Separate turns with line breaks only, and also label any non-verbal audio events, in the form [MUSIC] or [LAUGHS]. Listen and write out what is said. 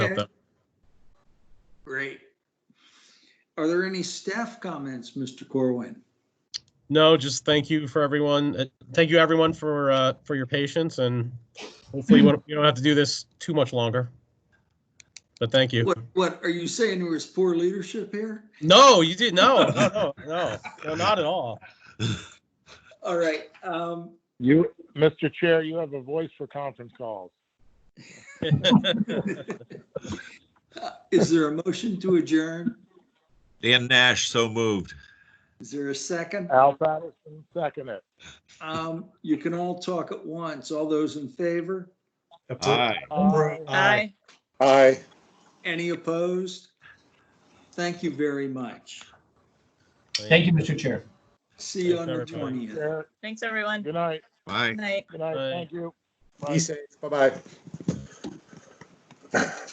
Okay.
that.
Great. Are there any staff comments, Mr. Corwin?
No, just thank you for everyone. uh, Thank you, everyone, for, uh, for your patience and hopefully we don't- you don't have to do this too much longer. But thank you.
What, what, are you saying there was poor leadership here?
No, you
[LAUGHS]
did, no, no, no, no, no, not at all. [LAUGHS]
All right, um,
You, Mr. Chair, you have a voice for conference calls.
is there a motion to adjourn?
Dan Nash, so moved.
Is there a second?
Al Patterson, second it.
Um, you can all talk at once. All those in favor?
Aye.
Aye.
Aye.
Any opposed? Thank you very much.
Thank you, Mr. Chair.
See you on the
Thanks, everybody.
twentieth.
Chair,
Thanks, everyone.
Good night,
Aye.
Night.
good night,
Aye.
thank you. Bye.
Be safe. Bye-bye.